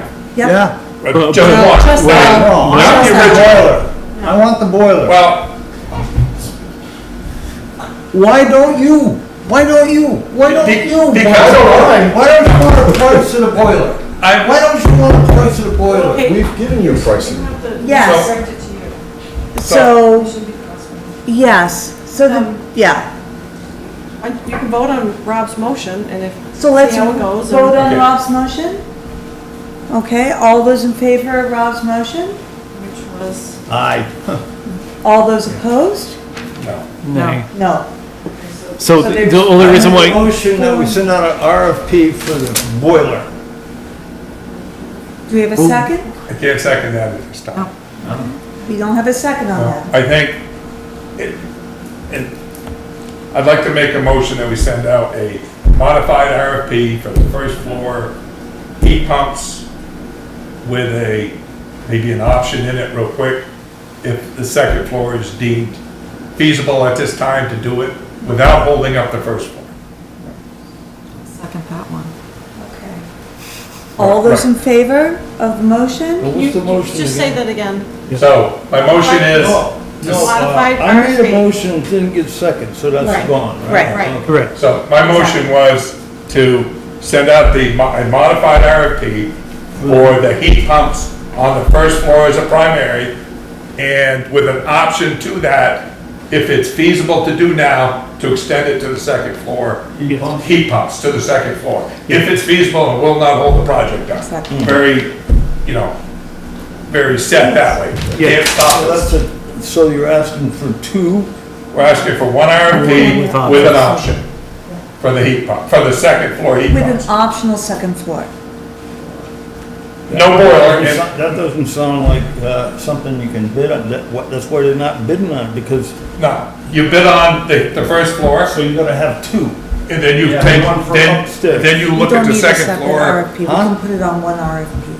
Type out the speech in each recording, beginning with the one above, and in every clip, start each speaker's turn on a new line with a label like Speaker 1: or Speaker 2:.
Speaker 1: Yep.
Speaker 2: Yeah.
Speaker 3: Just
Speaker 4: Uh, but-
Speaker 3: one.
Speaker 1: Just
Speaker 4: Wait,
Speaker 1: that.
Speaker 2: No, I
Speaker 4: Not
Speaker 2: want
Speaker 4: the
Speaker 2: the
Speaker 4: original.
Speaker 2: boiler. I want the boiler.
Speaker 3: Well,
Speaker 2: Why don't you? Why don't you? Why don't
Speaker 3: Be-
Speaker 2: you?
Speaker 3: because-
Speaker 2: Why why don't you want a price to the boiler?
Speaker 3: I-
Speaker 2: Why don't you want a price to the boiler?
Speaker 1: Okay.
Speaker 5: We've given you pricing.
Speaker 1: Yes,
Speaker 6: Direct it to you.
Speaker 1: so,
Speaker 6: Should be crosswalk.
Speaker 1: yes, so the,
Speaker 6: Um,
Speaker 1: yeah,
Speaker 6: I- You can vote on Rob's motion and if.
Speaker 1: so let's
Speaker 6: see how it goes and-
Speaker 1: vote on
Speaker 3: Okay.
Speaker 1: Rob's motion. Okay, all those in favor of Rob's motion?
Speaker 6: Which was,
Speaker 2: Aye.
Speaker 1: All those opposed?
Speaker 6: no,
Speaker 1: No. So
Speaker 4: So the
Speaker 1: there's-
Speaker 4: the only reason
Speaker 2: I make a
Speaker 4: why,
Speaker 2: motion that we send out an RFP for the boiler.
Speaker 1: Do we have a second?
Speaker 3: I can't second that at this time.
Speaker 1: We don't have a second on that.
Speaker 3: I think, it, it, I'd like to make a motion that we send out a modified RFP for the first floor heat pumps with a, maybe an option in it real quick, if the second floor is deemed feasible at this time to do it without holding up the first floor.
Speaker 6: second that one.
Speaker 1: Okay. All those in favor of the motion?
Speaker 2: What was the motion
Speaker 6: Just say
Speaker 2: again?
Speaker 6: that again.
Speaker 3: So, my motion is,
Speaker 2: No, no, uh,
Speaker 6: Modified
Speaker 2: I made a
Speaker 6: RFP.
Speaker 2: motion, and didn't get second, so
Speaker 1: Right.
Speaker 2: that's gone,
Speaker 1: Right,
Speaker 2: right?
Speaker 6: right.
Speaker 2: Okay.
Speaker 4: correct.
Speaker 3: so my motion was to send out the, mo- a modified RFP for the heat pumps on the first floor as a primary, and with an option to that, if it's feasible to do now, to extend it to the second floor.
Speaker 2: Heat pump.
Speaker 3: Heat pumps to the second floor, if it's feasible, it will not hold the project up.
Speaker 1: Exactly.
Speaker 3: Very, you know, very set that way. uh,
Speaker 4: Yeah.
Speaker 3: Can't stop
Speaker 2: So
Speaker 3: us.
Speaker 2: that's a, so you're asking for two?
Speaker 3: We're asking for one
Speaker 4: With
Speaker 3: RFP
Speaker 4: options.
Speaker 3: with an option for the heat pump, for the second floor heat
Speaker 1: With an
Speaker 3: pumps.
Speaker 1: optional second floor.
Speaker 3: No boiler, and-
Speaker 2: That doesn't sound like, uh, something you can bid on, that, what, that's why they're not bidding on it, because,
Speaker 3: no, you bid on the, the first floor,
Speaker 2: so you're gonna have two.
Speaker 3: and then you
Speaker 2: Yeah,
Speaker 3: take,
Speaker 2: one for
Speaker 3: then,
Speaker 2: upstairs.
Speaker 3: then you
Speaker 1: We
Speaker 3: look
Speaker 1: don't
Speaker 3: at the
Speaker 1: need a
Speaker 3: second
Speaker 1: separate
Speaker 3: floor,
Speaker 1: RFP, we
Speaker 2: Huh?
Speaker 1: can put it on one RFP.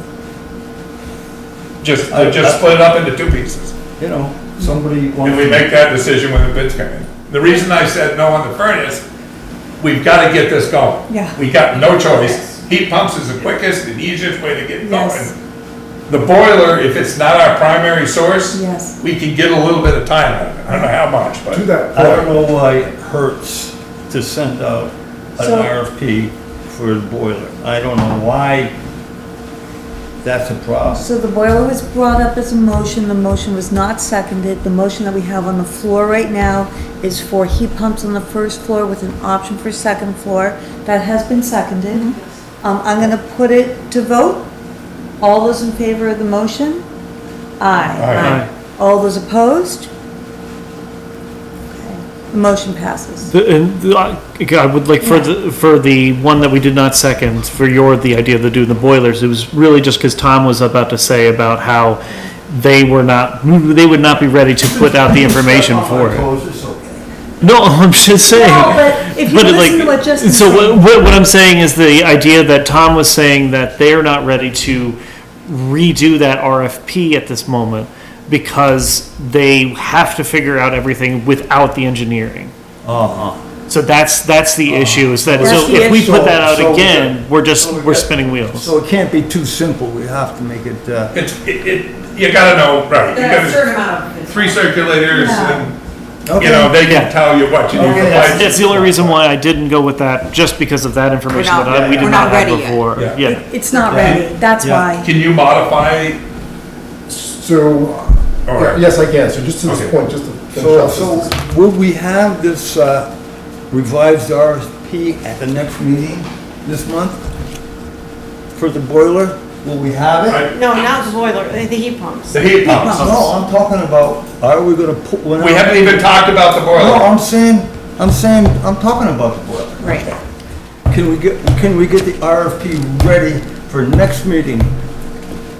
Speaker 3: just,
Speaker 2: I-
Speaker 3: just split it up into two pieces.
Speaker 2: You know, somebody wants.
Speaker 3: And we
Speaker 2: to-
Speaker 3: make that decision when the bids come in. The reason I said no on the furnace, we've gotta get this going.
Speaker 1: Yeah.
Speaker 3: We got no choice. Heat pumps is the quickest and easiest way to get
Speaker 1: Yes.
Speaker 3: going. The boiler, if it's not our primary source,
Speaker 1: Yes.
Speaker 3: we can get a little bit of time out of it. I don't know how much, but.
Speaker 5: Do that.
Speaker 2: I don't know why it hurts to send out an
Speaker 1: So-
Speaker 2: RFP for the boiler. I don't know why that's a problem.
Speaker 1: So the boiler was brought up as a motion, the motion was not seconded. The motion that we have on the floor right now is for heat pumps on the first floor with an option for second floor. That has been seconded. Um, I'm gonna put it to vote. All those in favor of the motion?
Speaker 3: Aye.
Speaker 1: Aye. All those opposed? The motion passes.
Speaker 4: The- And the- I I would like for the, for the one that we did not second, for your, the idea of the doing the boilers, it was really just because Tom was about to say about how they were not, they would not be ready to put out the information for it.
Speaker 2: It's okay.
Speaker 4: No, I'm just saying.
Speaker 1: No, but if you
Speaker 4: But it,
Speaker 1: listen
Speaker 4: like-
Speaker 1: to what Justin
Speaker 4: So
Speaker 1: said-
Speaker 4: what, what what I'm saying is the idea that Tom was saying that they're not ready to redo that RFP at this moment because they have to figure out everything without the engineering.
Speaker 2: Uh-huh.
Speaker 4: So that's, that's the issue is that,
Speaker 1: That's
Speaker 4: so
Speaker 1: the
Speaker 4: if we
Speaker 2: issue.
Speaker 4: put that
Speaker 2: Ah. So- so
Speaker 4: out
Speaker 2: we
Speaker 4: again,
Speaker 2: got-
Speaker 4: we're just,
Speaker 2: so we
Speaker 4: we're
Speaker 2: got-
Speaker 4: spinning wheels.
Speaker 2: So it can't be too simple. We have to make it, uh,
Speaker 3: It's, it, it, you gotta know, right, you
Speaker 6: There are a certain
Speaker 3: gotta,
Speaker 6: amount of.
Speaker 3: three circulators and, you know,
Speaker 2: okay.
Speaker 3: they
Speaker 4: Yeah.
Speaker 3: can tell you what you need.
Speaker 2: Okay.
Speaker 3: for
Speaker 4: That's,
Speaker 3: lights.
Speaker 4: that's the only reason why I didn't go with that, just because of that information
Speaker 7: not-
Speaker 4: that I, we
Speaker 2: yeah,
Speaker 4: did
Speaker 2: we're
Speaker 4: not
Speaker 7: not
Speaker 4: have
Speaker 7: ready yet.
Speaker 4: before.
Speaker 3: Yeah.
Speaker 4: Yeah.
Speaker 1: It's not ready, that's
Speaker 2: Yeah.
Speaker 1: why.
Speaker 3: Can you modify,
Speaker 5: So,
Speaker 3: or,
Speaker 5: yeah, yes, I can, so just to
Speaker 3: Okay.
Speaker 5: this point, just to finish
Speaker 2: So,
Speaker 5: up. this-
Speaker 2: so will we have this uh, revised RFP at the next meeting this month? For the boiler? Will we have it?
Speaker 3: I-
Speaker 6: No, not the boiler, the the heat pumps.
Speaker 3: the heat pumps?
Speaker 2: No, I'm talking about, are we gonna put one out?
Speaker 3: We haven't even talked about the
Speaker 2: No,
Speaker 3: boiler.
Speaker 2: I'm saying, I'm saying, I'm talking about the boiler.
Speaker 1: Right.
Speaker 2: Can we get, can we get the RFP ready for next meeting?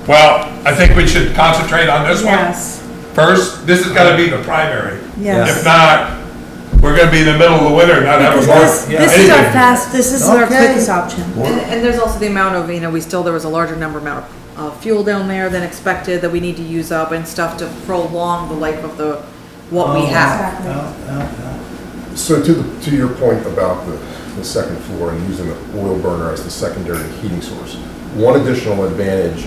Speaker 3: Well, I think we should concentrate on this one
Speaker 1: Yes,
Speaker 3: first. This is gotta be the primary.
Speaker 1: yes.
Speaker 3: If not, we're gonna be in the middle of the winter and not have a
Speaker 1: Because this,
Speaker 3: boiler.
Speaker 2: yeah,
Speaker 1: this is our
Speaker 3: anything.
Speaker 1: fast, this is our
Speaker 2: Okay.
Speaker 1: quickest option.
Speaker 7: And, and there's also the amount of, you know, we still, there was a larger number amount of uh, fuel down there than expected that we need to use up and stuff to prolong the life of the, what we
Speaker 2: Oh.
Speaker 7: have.
Speaker 5: So to, the- to your point about the, the second floor and using the oil burner as the secondary heating source, one additional advantage